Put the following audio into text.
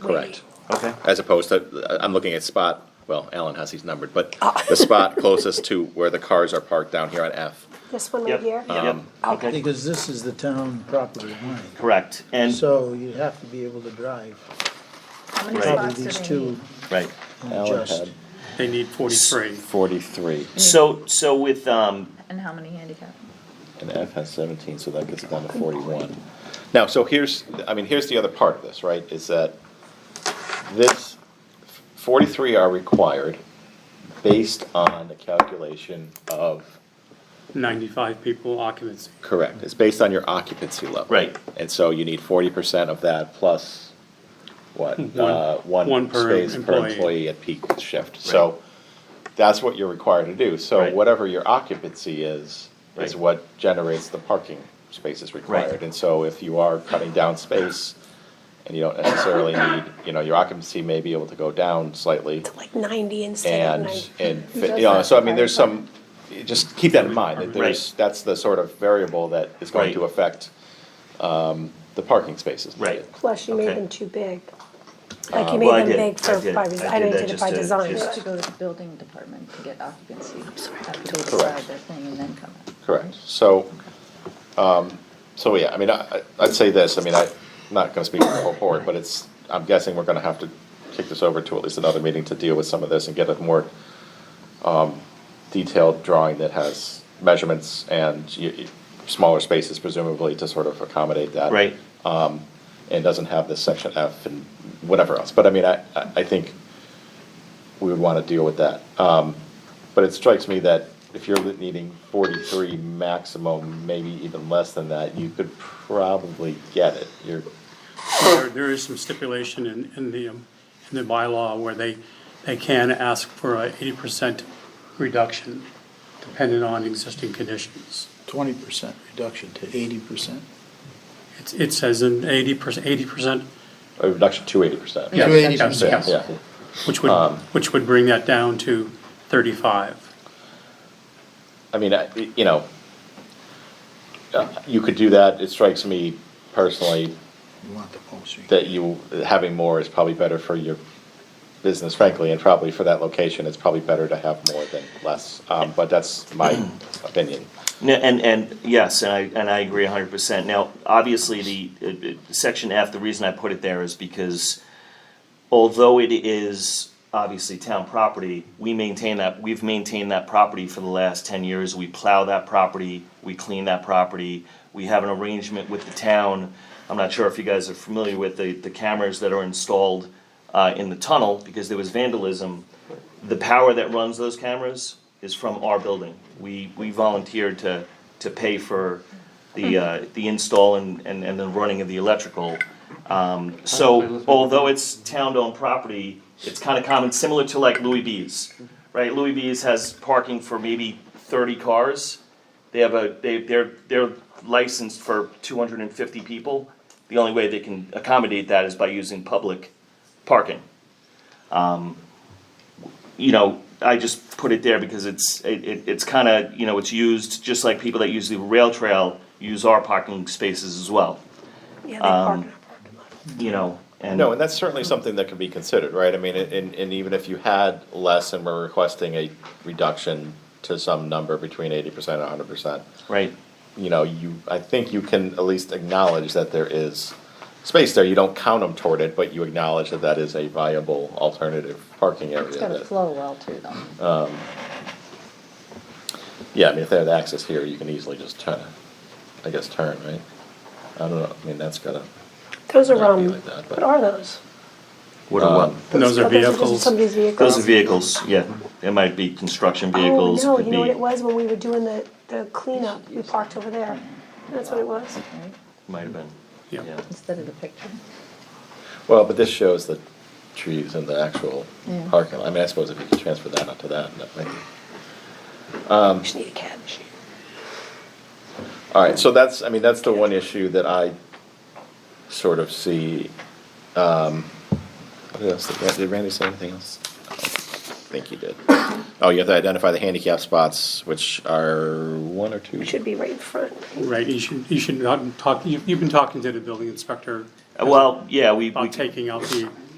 Correct. Okay. As opposed to, uh, I'm looking at spot, well, Alan has these numbered, but the spot closest to where the cars are parked down here on F. This one Yep. right here? Yep. Okay. Because this is the town property line, Correct. And, so you have to be able to drive How many Right. probably spots do these they two need? right. and Alan adjust. had They need forty-three. forty-three, So, so with, um, And how many handicap? and F has seventeen, so that gets down to forty-one. Now, so here's, I mean, here's the other part of this, right, is that this, forty-three are required Based on the calculation of, Ninety-five people occupancy. correct, it's based on your occupancy level. Right. And so you need forty percent of that plus, what, uh, one one per space per employee. employee at peak shift. So that's what you're required to do, so Right. whatever your occupancy is, is Right. what generates the parking spaces required. And so if you are cutting down space, and you don't necessarily need, you know, your occupancy may be able to go down slightly, Like ninety instead of and, ninety. and, It fit- does you know, that so I mean, very there's some, just keep that in mind, that Right. there's, that's the sort of variable that is going to Right. affect, um, the parking spaces. right. Plus you made Okay. Uh, them too big. Like you well, I made them did. big I for, did. by- I I did know you that did it just by to- design. You have just- to go to the building department to get occupancy, have to decide Correct. their thing and then come up. Correct, so, um, so yeah, I mean, I, I'd say this, I mean, I'm not gonna speak for the whole board, but it's, I'm guessing we're gonna have to kick this over to at least another meeting to deal with some of this and get a more, um, detailed drawing that has measurements and y y- smaller spaces presumably to sort of accommodate that. Right. And doesn't have this section F and whatever else, but I mean, I, I, I think we would wanna deal with that. Um, but it strikes me that if you're needing forty-three maximum, maybe even less than that, you could probably get it. You're, There, there is some stipulation in, in the, um, in the bylaw where they, they can ask for a eighty percent reduction depending on existing conditions. Twenty percent reduction to eighty percent. It's, it says an eighty percent, eighty percent, a reduction to eighty percent. Yeah. yes, yes, Yeah, Um, which would, which would bring that down to thirty-five. I mean, I- you know, uh, you could do that, it strikes me personally You want the posting. that you, having more is probably better for your business frankly, and probably for that location, it's probably better to have more than less, um, but that's my opinion. No, and, and, yes, and I, and I agree hundred percent. Now, obviously, the, uh, uh, section F, the reason I put it there is because although it is obviously town property, we maintain that, we've maintained that property for the last ten years. We plow that property, we clean that property, we have an arrangement with the town. I'm not sure if you guys are familiar with the, the cameras that are installed, uh, in the tunnel, because there was vandalism. The power that runs those cameras is from our building. We, we volunteered to, to pay for the, uh, the install and, and, and the running of the electrical. Um, so although it's town-owned property, it's kind of common, similar to like Louis B's, right? Louis B's has parking for maybe thirty cars. They have a, they, they're, they're licensed for two hundred and fifty people. The only way they can accommodate that is by using public parking. Um, you know, I just put it there because it's, it, it, it's kind of, you know, it's used, just like people that use the rail trail use our parking spaces as well, Yeah, they um, park in our parking lot. you know, and. No, and that's certainly something that can be considered, right? I mean, and, and even if you had less and were requesting a reduction to some number between eighty percent and hundred percent, Right, you know, you, I think you can at least acknowledge that there is space there. You don't count them toward it, but you acknowledge that that is a viable alternative parking area. It's gotta that- flow well too, though. Yeah, I mean, if they have access here, you can easily just turn, I guess, turn, right? I don't know, I mean, that's gotta, Those are, Not be um, like that, but- what are those? what a one. And those Oh, are just vehicles. Somebody's Those vehicles. are vehicles, yeah, it might be construction vehicles, Oh, no, could you know what it be, was when we were doing the, the cleanup, we parked over there. That's what it was. right? might have been, Yeah. yeah. Instead of the picture. well, but this shows the trees and the actual Yeah. parking. lot. I mean, I suppose if you could transfer that onto that, that might be. Um, We just need a cab machine. All right, so that's, I mean, that's the one issue that I sort of see. um, What else, did did Randy say anything else? I think he did. Oh, you have to identify the handicap spots, which are one or two? It should be right in front. Right, you should, Uh, you should not talk, you've, you've been talking to the building inspector Well, yeah, we, we about taking out the